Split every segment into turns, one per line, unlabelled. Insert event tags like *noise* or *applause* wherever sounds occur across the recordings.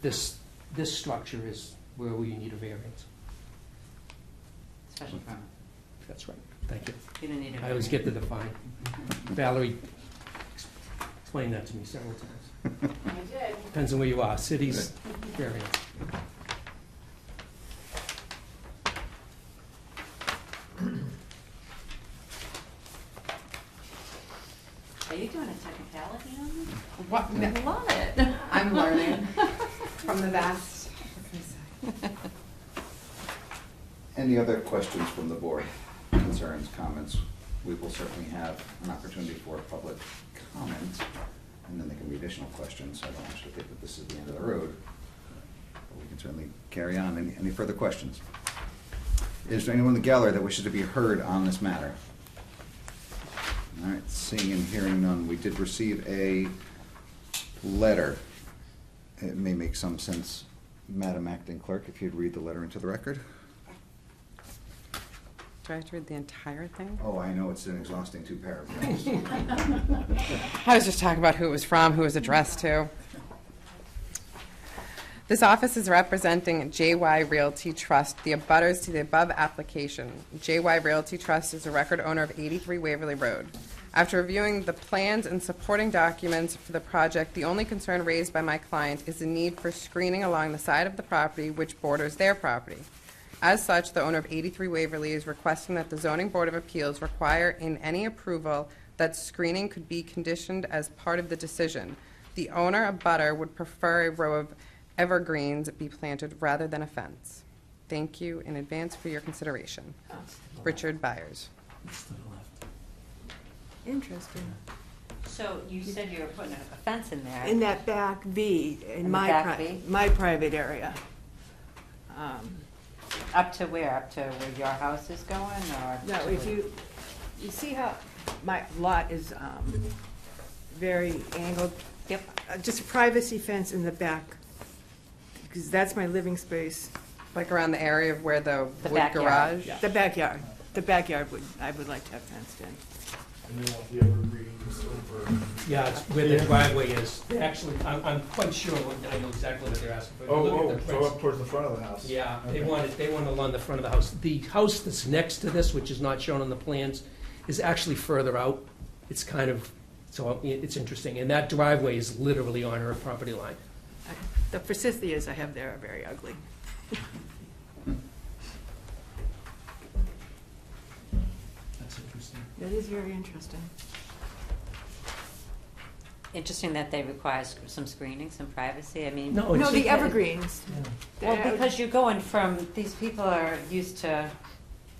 This, this structure is where we need a variance.
Special permit.
That's right. Thank you.
You don't need a.
I always
variance.
get to define. Valerie ex- explained that to me several times.
I did.
Depends on where you are, cities, variance.
Are you doing a technicality on this?
What? No,
I love it.
I'm learning from the best.
Any other questions from the board, concerns, comments? We will certainly have an opportunity for public comment, and then there can be additional questions. I don't actually think that this is the end of the road. but We can certainly carry on. Any, any further questions? Is there anyone in the gallery that wishes to be heard on this matter? All right, seeing and hearing none. We did receive a letter. It may make some sense, Madam Acting Clerk, if you'd read the letter into the record.
Do I have to read the entire thing?
Oh, I know, it's an exhausting two paragraphs.
*laughs*
I was just talking about who it was from, who it was addressed to. This office is representing JY Realty Trust, the abutters to the above application. JY Realty Trust is a record owner of 83 Waverly Road. After reviewing the plans and supporting documents for the project, the only concern raised by my client is the need for screening along the side of the property which borders their property. As such, the owner of 83 Waverly is requesting that the Zoning Board of Appeals require in any approval that screening could be conditioned as part of the decision. The owner of Butter would prefer a row of evergreens be planted rather than a fence. Thank you in advance for your consideration.
Oh.
Richard Byers.
It's to the left.
Interesting.
*laughs* So you said you were putting a fence in there.
In that back V,
the
in my,
back
pri-
V?
my private area. Um,
Up to where? Up to where your house is going or?
No, if you, you see how my lot is um, very angled?
Yep.
Uh, Just a privacy fence in the back, because that's my living space.
Like around the area of where the
The
wood
backyard.
garage?
The backyard, the backyard would, I would like to have fenced in.
And you want the evergreens over.
Yeah, it's where the driveway is. Actually, I'm, I'm quite sure, what- I know exactly what they're asking for. If you look
Oh,
at
oh,
the
so
prints-
up towards the front of the house.
Yeah, they
Okay.
wanted, they want along the front of the house. The house that's next to this, which is not shown on the plans, is actually further out. It's kind of, so it- it's interesting, and that driveway is literally on her property line.
I- The forsythias I have there are very ugly.
That's interesting.
That is very interesting.
Interesting that they require s- some screening, some privacy. I mean.
Oh,
No,
No,
it's,
the evergreens.
Well,
They're-
because you're going from, these people are used to,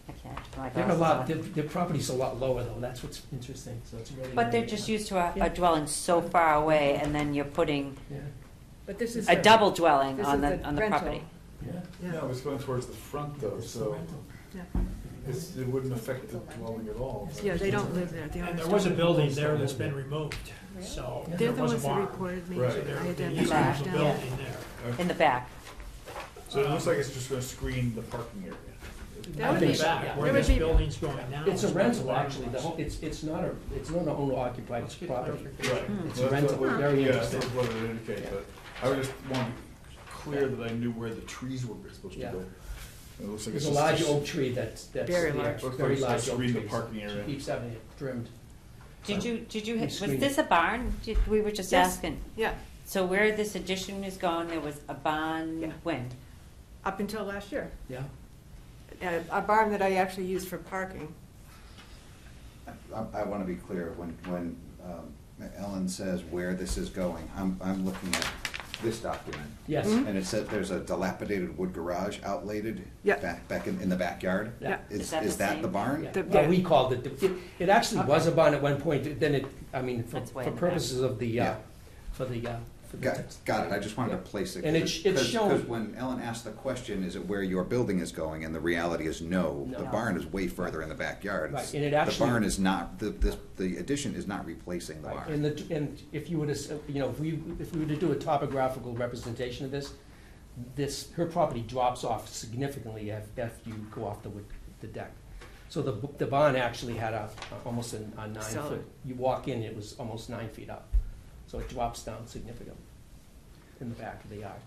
I can't, my
they're a
glasses
lot,
on.
their, their property's a lot lower though, that's what's interesting, so it's really.
But they're just used to a-
Yeah.
a dwelling so far away and then you're putting
Yeah,
But this is.
a
the-
double dwelling
This
on
is
the,
the
on the
rental.
property.
yeah.
Yeah.
No, it's going towards the front though,
It's the
so
rental.
Yeah.
it's, it wouldn't affect the dwelling at all.
Yeah, they don't live there, they
And
owners
there was a
don't.
building there that's been removed, so
They're
there
the
was a
ones that
barn.
reported me. I
Right.
So there
had
would
to
be
have
used
them
as
back
a
down.
building there.
In the back.
So it looks like it's just gonna screen the parking area.
That would
In
be,
the back,
there
where
would
this
be-
building's going now.
It's a
is where the
rental,
barn
actually, the
was.
whole, it's, it's not a, it's not an owner occupied
Let's get
property.
clarification.
Right.
Hmm. It's
Well, that's
rental, Ah.
what-
very
Yeah, that's
interesting.
what it indicates, but I was just wanting clear that I knew where the trees were supposed to
Yeah.
go. It looks like
There's
it's
a
just-
large oak tree that's, that's.
Very
the-
large.
Looks like
Very
it's gonna
large oak
screen the
tree.
parking area.
She keeps having it trimmed.
Did you, did you,
We
was
screened
this a barn? Did- We were just
Yes.
asking.
Yeah,
So where this addition is going, there was a
Yeah.
barn when?
up until last year.
Yeah.
A a barn that I actually used for parking.
I, I want to be clear, when, when um, Ellen says where this is going, I'm, I'm looking at this document.
Yes.
And it said there's a dilapidated wood garage outlated
Yeah.
back, back in, in the backyard.
Yeah.
Is
Is,
that
is
the
that
same?
the barn?
Yeah,
The-
well,
yeah.
we called it, the- it, it actually was a bond at one point, then it, I mean, for,
That's way
for
in the back.
purposes of the, uh,
Yeah.
for the, uh, for the
Got,
text.
got it, I just wanted to place it.
And it sh- it showed-
Because when Ellen asked the question, is it where your building is going, and the reality is no, the
No.
barn is way further in the backyard.
Right, and it actually-
The barn is not, the, the, the addition is not replacing the
Right,
barn.
and the, and if you were to, s- you know, if we, if we were to do a topographical representation of this, this, her property drops off significantly af- after you go off the, wood- the deck. So the, b- the barn actually had a, almost a a nine
Solid.
foot, you walk in, it was almost nine feet up. So it drops down significantly in the back of the yard.